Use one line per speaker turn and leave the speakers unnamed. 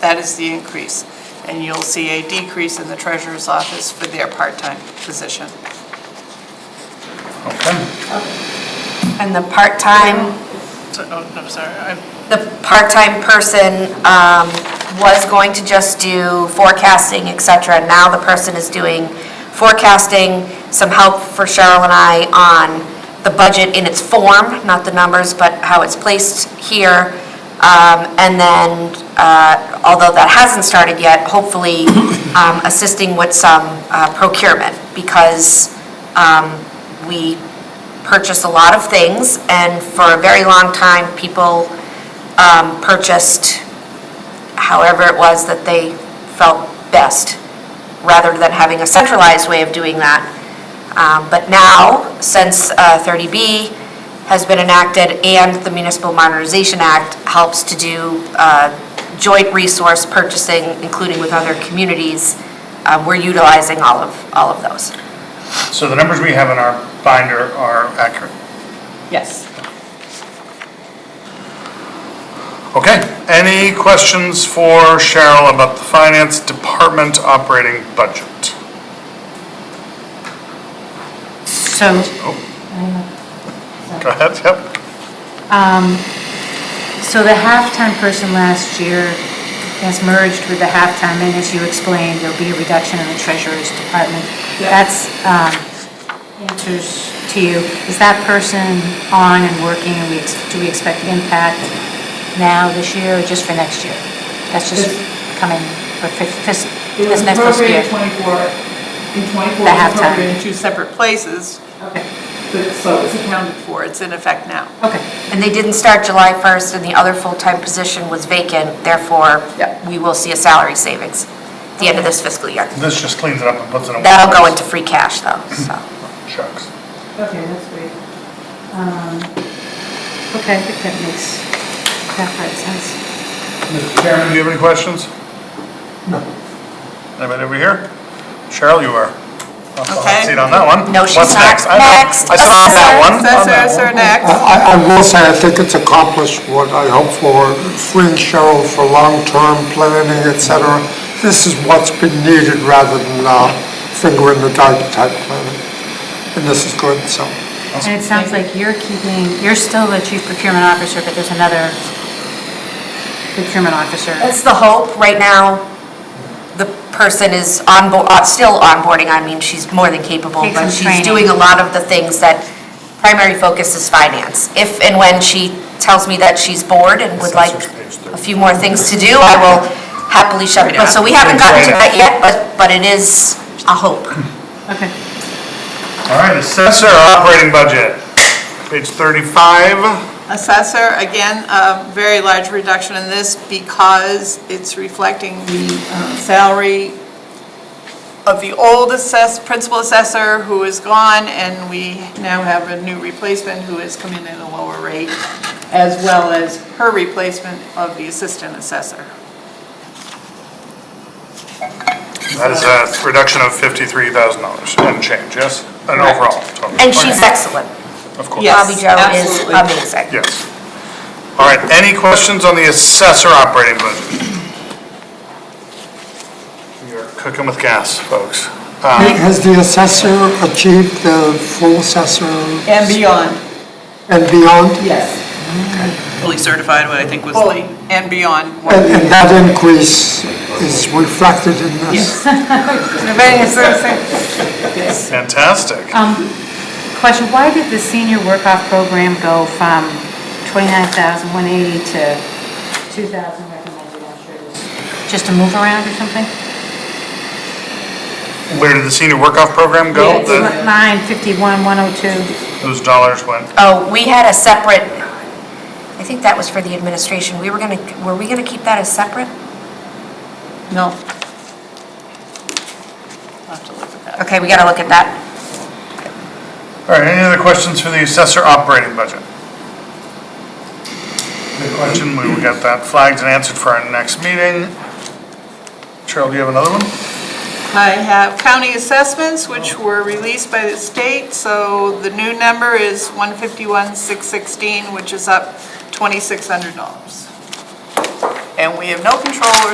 that is the increase. And you'll see a decrease in the treasurer's office for their part-time position.
Okay.
And the part-time,
So, oh, I'm sorry, I'm
the part-time person um, was going to just do forecasting, et cetera. Now the person is doing forecasting, some help for Cheryl and I on the budget in its form, not the numbers, but how it's placed here. Um, And then, uh, although that hasn't started yet, hopefully um, assisting with some uh, procurement because um, we purchased a lot of things, and for a very long time, people um, purchased however it was that they felt best, rather than having a centralized way of doing that. Um, But now, since uh, 30B has been enacted and the Municipal Modernization Act helps to do uh, joint resource purchasing, including with other communities, uh, we're utilizing all of, all of those.
So the numbers we have in our binder are accurate.
Yes.
Okay, any questions for Cheryl about the finance department operating budget?
So,
Go ahead, yep.
so the halftime person last year has merged with the halftime, and as you explained, there'll be a reduction in the treasurer's department. That's, um, answers to you. Is that person on and working, and we, ex- do we expect an impact now, this year, or just for next year? That's just coming for fif- fis-
It was
this next fiscal year?
appropriated in 24, in 24,
The
it was
halftime.
appropriated
In two separate places,
Okay, but so it's accounted for.
for it's in effect now.
Okay,
And they didn't start July 1st, and the other full-time position was vacant, therefore,
Yeah.
we will see a salary savings at the end of this fiscal year.
This just cleans it up and puts it in. one
That'll go
place.
into free cash, though, so.
Shucks.
Okay, that's great.
Um, okay, I think that makes, that part sense.
Mr. Chairman, do you have any questions? No. Anybody over here? Cheryl, you are.
Okay.
See on that one.
No, she's
What's
not.
next? I know.
Next,
I saw that
assessor.
one. on that
Assessors
one.
are next.
I, I will say, I think it's accomplished what I hope for, freeing Cheryl for long-term planning, et cetera. This is what's been needed rather than uh, finger in the dike type planning. And this is good, so.
And it sounds like you're keeping, you're still the chief procurement officer, but there's another procurement officer.
That's the hope. Right now, the person is on onboard, still onboarding, I mean, she's more than capable,
Takes
but
some
she's
training.
doing a lot of the things that, primary focus is finance. If and when she tells me that she's bored and would like
Assessor's page thirty.
a few more things to do, I will happily shove it. So we haven't gotten to that yet, but, but it is a hope.
Okay.
All right, assessor operating budget, page 35.
Assessor, again, a very large reduction in this because it's reflecting the uh, salary of the old assess, principal assessor who is gone, and we now have a new replacement who has come in at a lower rate, as well as her replacement of the assistant assessor.
That is a reduction of $53,000 and change, yes? And
Correct.
overall. total.
And she's
Okay,
excellent.
Of course.
Yes,
Bobby Joe is
absolutely.
amazing.
Yes. All right, any questions on the assessor operating budget? You're cooking with gas, folks. Um,
Has the assessor achieved the full assessor
And beyond.
and beyond?
Yes.
fully certified, what I think was
Fully
the,
and beyond.
And and that increase is reflected in this?
Yes.
Fantastic.
Um, Question, why did the senior work-off program go from 29,180 to 2,000 recommended? I'm sure it was Just a move around or something?
Where did the senior work-off program go?
It's
The-
Line oh 51, 102.
Those dollars went,
Oh, we had a separate, I think that was for the administration. We were gonna, were we gonna keep that as separate?
No. I'll have to look at that.
Okay, we gotta look at that.
all right, any other questions for the assessor operating budget? Good question, we will get that flagged and answered for our next meeting. Cheryl, do you have another one?
I have county assessments, which were released by the state, so the new number is 151,616, which is up $2,600. And we have no control or